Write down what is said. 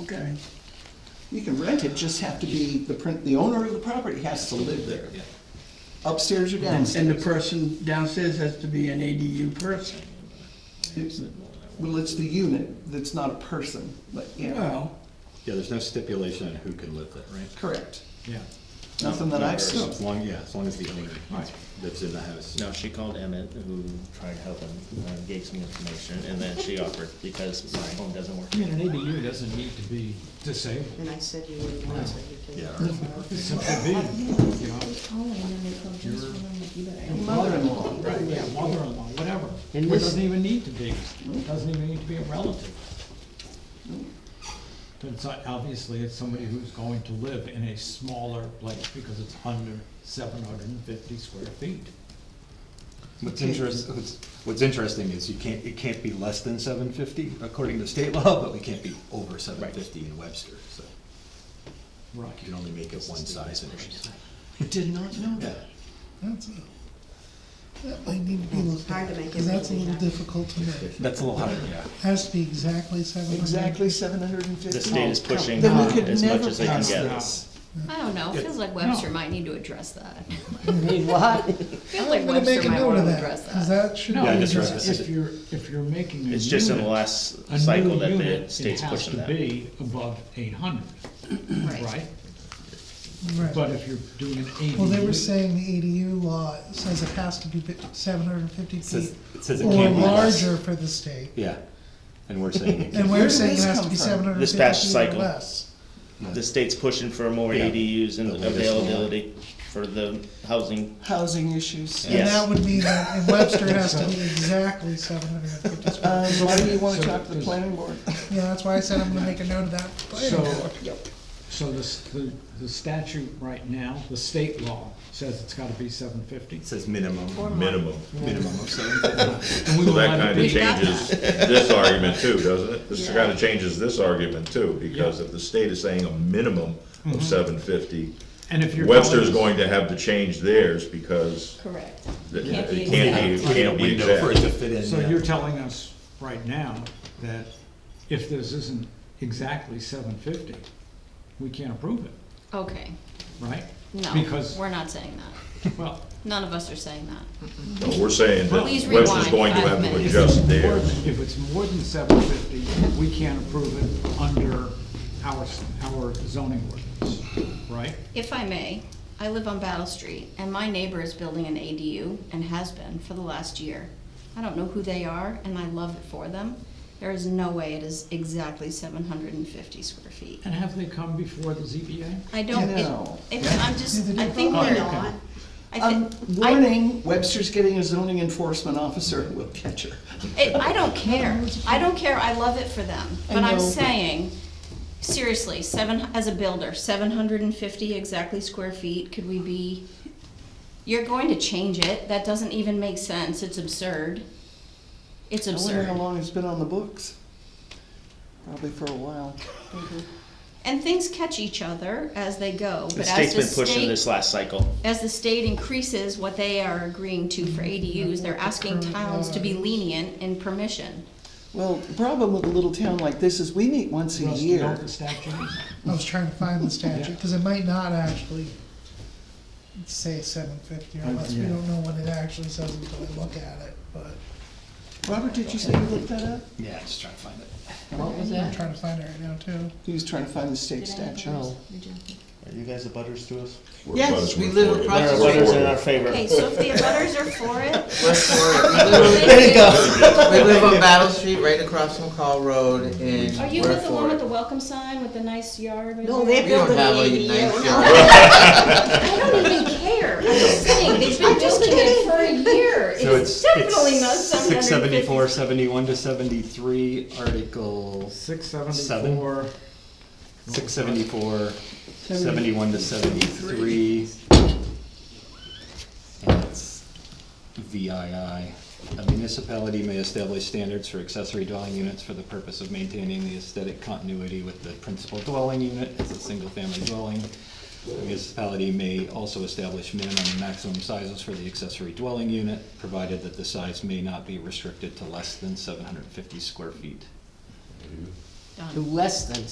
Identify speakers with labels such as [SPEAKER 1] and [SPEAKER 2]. [SPEAKER 1] Okay. You can rent it, just have to be, the print, the owner of the property has to live there,
[SPEAKER 2] Yeah.
[SPEAKER 1] upstairs or
[SPEAKER 3] And,
[SPEAKER 1] downstairs.
[SPEAKER 3] and the person downstairs has to be an ADU person.
[SPEAKER 1] It's- Well, it's the unit that's not a person, but, yeah,
[SPEAKER 3] Well,
[SPEAKER 2] Yeah, there's no stipulation on who can live there, right?
[SPEAKER 1] correct.
[SPEAKER 4] Yeah.
[SPEAKER 1] Nothing that I've seen.
[SPEAKER 2] As long, yeah, as long as the owner lives in the house.
[SPEAKER 5] No, she called Emmett, who tried helping, uh, gave some information, and then she offered, because my phone doesn't work.
[SPEAKER 4] I mean, an ADU doesn't need to be disabled.
[SPEAKER 6] And I said you wouldn't want to, you
[SPEAKER 2] Yeah,
[SPEAKER 6] can.
[SPEAKER 2] or-
[SPEAKER 4] It simply be, you know,
[SPEAKER 1] Mother-in-law,
[SPEAKER 4] right, yeah, mother-in-law, whatever.
[SPEAKER 6] And
[SPEAKER 4] It
[SPEAKER 6] this-
[SPEAKER 4] doesn't even need to be, it doesn't even need to be a relative. But it's, not- obviously, it's somebody who's going to live in a smaller place because it's under seven hundred and fifty square feet.
[SPEAKER 2] What's interest, what's, what's interesting is you can't, it can't be less than seven fifty according to state law, but we can't be over seven fifty in Webster, so
[SPEAKER 4] Right.
[SPEAKER 2] you can only make it one size anyways.
[SPEAKER 1] I did not know
[SPEAKER 2] Yeah,
[SPEAKER 1] that.
[SPEAKER 7] That's a, that might need to be looked
[SPEAKER 6] Hard
[SPEAKER 7] at,
[SPEAKER 6] to make
[SPEAKER 7] because that's a
[SPEAKER 6] everything
[SPEAKER 7] little
[SPEAKER 6] happen.
[SPEAKER 7] difficult to make.
[SPEAKER 2] that's a little hard, yeah.
[SPEAKER 7] Has to be exactly seven hundred.
[SPEAKER 1] Exactly seven hundred and fifty.
[SPEAKER 5] The state is pushing
[SPEAKER 1] Then we could
[SPEAKER 5] as much
[SPEAKER 1] never
[SPEAKER 5] as they can
[SPEAKER 1] pass
[SPEAKER 5] get.
[SPEAKER 1] this.
[SPEAKER 8] I don't know, feels like Webster might need to address that.
[SPEAKER 6] Need what?
[SPEAKER 8] Feels like
[SPEAKER 7] I'm gonna make
[SPEAKER 8] Webster
[SPEAKER 7] a
[SPEAKER 8] might
[SPEAKER 7] note
[SPEAKER 8] wanna
[SPEAKER 7] of
[SPEAKER 8] address
[SPEAKER 7] that, because
[SPEAKER 8] that.
[SPEAKER 7] that should be.
[SPEAKER 4] No,
[SPEAKER 2] I
[SPEAKER 4] because
[SPEAKER 2] just read this.
[SPEAKER 4] if you're, if you're making a unit.
[SPEAKER 5] It's just in the last
[SPEAKER 4] a new
[SPEAKER 5] cycle that the
[SPEAKER 4] unit,
[SPEAKER 5] state's pushing that.
[SPEAKER 4] It has to be above eight hundred, right?
[SPEAKER 7] Right.
[SPEAKER 4] But if you're doing an ADU.
[SPEAKER 7] Well, they were saying the ADU law says it has to be seven hundred and fifty
[SPEAKER 2] Says-
[SPEAKER 7] feet
[SPEAKER 2] it says it
[SPEAKER 7] or
[SPEAKER 2] can't be less.
[SPEAKER 7] larger for the state.
[SPEAKER 2] Yeah, and we're saying,
[SPEAKER 7] And
[SPEAKER 1] Where
[SPEAKER 7] we're
[SPEAKER 1] did
[SPEAKER 7] saying it
[SPEAKER 1] this
[SPEAKER 7] has
[SPEAKER 1] come
[SPEAKER 7] to be
[SPEAKER 1] from?
[SPEAKER 7] seven hundred and
[SPEAKER 5] This past
[SPEAKER 7] fifty feet or
[SPEAKER 5] cycle.
[SPEAKER 7] less.
[SPEAKER 5] The state's pushing for more
[SPEAKER 2] Yeah.
[SPEAKER 5] ADUs and
[SPEAKER 2] The latest one.
[SPEAKER 5] availability for the housing.
[SPEAKER 1] Housing issues.
[SPEAKER 5] Yeah.
[SPEAKER 7] And
[SPEAKER 5] Yes.
[SPEAKER 7] that would mean that in Webster it has to be exactly seven hundred and fifty square.
[SPEAKER 1] Um, why do you wanna
[SPEAKER 4] So-
[SPEAKER 1] talk to the planning board?
[SPEAKER 7] Yeah, that's why I said I'm gonna make a note of that.
[SPEAKER 4] So,
[SPEAKER 1] Yep.
[SPEAKER 4] so the, s- the- the statute right now, the state law says it's gotta be seven fifty.
[SPEAKER 2] it says minimum,
[SPEAKER 9] Minimum.
[SPEAKER 2] minimum of seven fifty.
[SPEAKER 9] So that kind of
[SPEAKER 8] We got
[SPEAKER 9] changes this argument too, doesn't it? This kind of changes this argument too, because if the state is saying a minimum of seven fifty,
[SPEAKER 4] And if you're.
[SPEAKER 9] Webster's
[SPEAKER 4] telling
[SPEAKER 9] going to have to change theirs because
[SPEAKER 8] Correct.
[SPEAKER 9] it
[SPEAKER 8] Can't
[SPEAKER 9] can't
[SPEAKER 8] be
[SPEAKER 9] be,
[SPEAKER 2] Put in a
[SPEAKER 9] can't be
[SPEAKER 2] window for it
[SPEAKER 9] exact.
[SPEAKER 2] to fit in.
[SPEAKER 4] us- So
[SPEAKER 2] yeah.
[SPEAKER 4] you're telling us right now that if this isn't exactly seven fifty, we can't approve it,
[SPEAKER 8] Okay,
[SPEAKER 4] right?
[SPEAKER 8] no,
[SPEAKER 4] Because,
[SPEAKER 8] we're not saying that.
[SPEAKER 4] well,
[SPEAKER 8] None of us are saying that.
[SPEAKER 9] No, we're saying that
[SPEAKER 8] Please rewind
[SPEAKER 9] Webster's going to
[SPEAKER 8] five
[SPEAKER 9] have to
[SPEAKER 8] minutes.
[SPEAKER 9] adjust
[SPEAKER 4] more-
[SPEAKER 9] theirs.
[SPEAKER 4] if it's more than seven fifty, we can't approve it under our, s- our zoning ordinance, right?
[SPEAKER 8] If I may, I live on Battle Street, and my neighbor is building an ADU, and has been for the last year. I don't know who they are, and I love it for them. There is no way it is exactly seven hundred and fifty square feet.
[SPEAKER 4] And have they come before the ZBA?
[SPEAKER 8] I don't, it,
[SPEAKER 1] No.
[SPEAKER 8] it- I'm just, I think
[SPEAKER 4] Oh,
[SPEAKER 8] they're
[SPEAKER 4] okay.
[SPEAKER 8] not. I
[SPEAKER 1] Um,
[SPEAKER 8] thi- I-
[SPEAKER 1] warning, Webster's getting a zoning enforcement officer, we'll catch her.
[SPEAKER 8] It, I don't care. I don't care. I love it for them.
[SPEAKER 1] I
[SPEAKER 8] But I'm
[SPEAKER 1] know.
[SPEAKER 8] saying, seriously, seven, as a builder, seven hundred and fifty exactly square feet, could we be? You're going to change it. That doesn't even make sense. It's absurd. It's
[SPEAKER 1] I wonder how
[SPEAKER 8] absurd.
[SPEAKER 1] long it's been on the books. Probably for a while.
[SPEAKER 8] And things catch each other as they go,
[SPEAKER 5] The
[SPEAKER 8] but
[SPEAKER 5] state's
[SPEAKER 8] as the
[SPEAKER 5] been pushing
[SPEAKER 8] state,
[SPEAKER 5] this last cycle.
[SPEAKER 8] as the state increases what they are agreeing to for ADUs, they're asking towns to be lenient in permission.
[SPEAKER 1] Well, the problem with a little town like this is we meet once a
[SPEAKER 4] Russ, you know what
[SPEAKER 1] year.
[SPEAKER 4] the statute is?
[SPEAKER 7] I was trying to find the statute,
[SPEAKER 4] Yeah.
[SPEAKER 7] because it might not actually say seven fifty, or
[SPEAKER 4] Uh,
[SPEAKER 7] unless we
[SPEAKER 4] yeah.
[SPEAKER 7] don't know what it actually says until we look at it, but.
[SPEAKER 1] Robert, did you say you looked that up?
[SPEAKER 2] Yeah, just trying to find it.
[SPEAKER 1] What was
[SPEAKER 7] I'm trying to find it right now, too.
[SPEAKER 1] He was trying to find the state statute.
[SPEAKER 5] Are you guys the butters to us?
[SPEAKER 9] We're
[SPEAKER 1] Yes,
[SPEAKER 9] butters,
[SPEAKER 1] we
[SPEAKER 9] we're
[SPEAKER 1] live
[SPEAKER 9] for it.
[SPEAKER 1] across the
[SPEAKER 5] There are
[SPEAKER 9] We're
[SPEAKER 5] butters
[SPEAKER 9] for
[SPEAKER 5] in
[SPEAKER 9] it.
[SPEAKER 5] our favor.
[SPEAKER 8] Okay, so if the abutters are for it,
[SPEAKER 10] There
[SPEAKER 8] you
[SPEAKER 10] go. We live on Battle Street, right across from Call Road, and
[SPEAKER 8] Are you
[SPEAKER 10] we're
[SPEAKER 8] with the
[SPEAKER 10] for
[SPEAKER 8] one
[SPEAKER 10] it.
[SPEAKER 8] with the welcome sign with the nice yard? right
[SPEAKER 6] No,
[SPEAKER 8] there?
[SPEAKER 6] they
[SPEAKER 10] We don't
[SPEAKER 6] built an
[SPEAKER 10] have a
[SPEAKER 6] ADU.
[SPEAKER 10] nice
[SPEAKER 8] I don't even care. I'm just saying, they've been building it for a year.
[SPEAKER 2] So
[SPEAKER 8] It's definitely not seven
[SPEAKER 2] Six
[SPEAKER 8] hundred and
[SPEAKER 2] seventy-four,
[SPEAKER 8] fifty.
[SPEAKER 2] seventy-one to seventy-three, Article
[SPEAKER 4] Six seventy-four.
[SPEAKER 2] six seventy-four, seventy-one to seventy-three. And it's VII. A municipality may establish standards for accessory dwelling units for the purpose of maintaining the aesthetic continuity with the principal dwelling unit as a single-family dwelling. The municipality may also establish minimum and maximum sizes for the accessory dwelling unit, provided that the size may not be restricted to less than seven hundred and fifty square feet.
[SPEAKER 6] Less than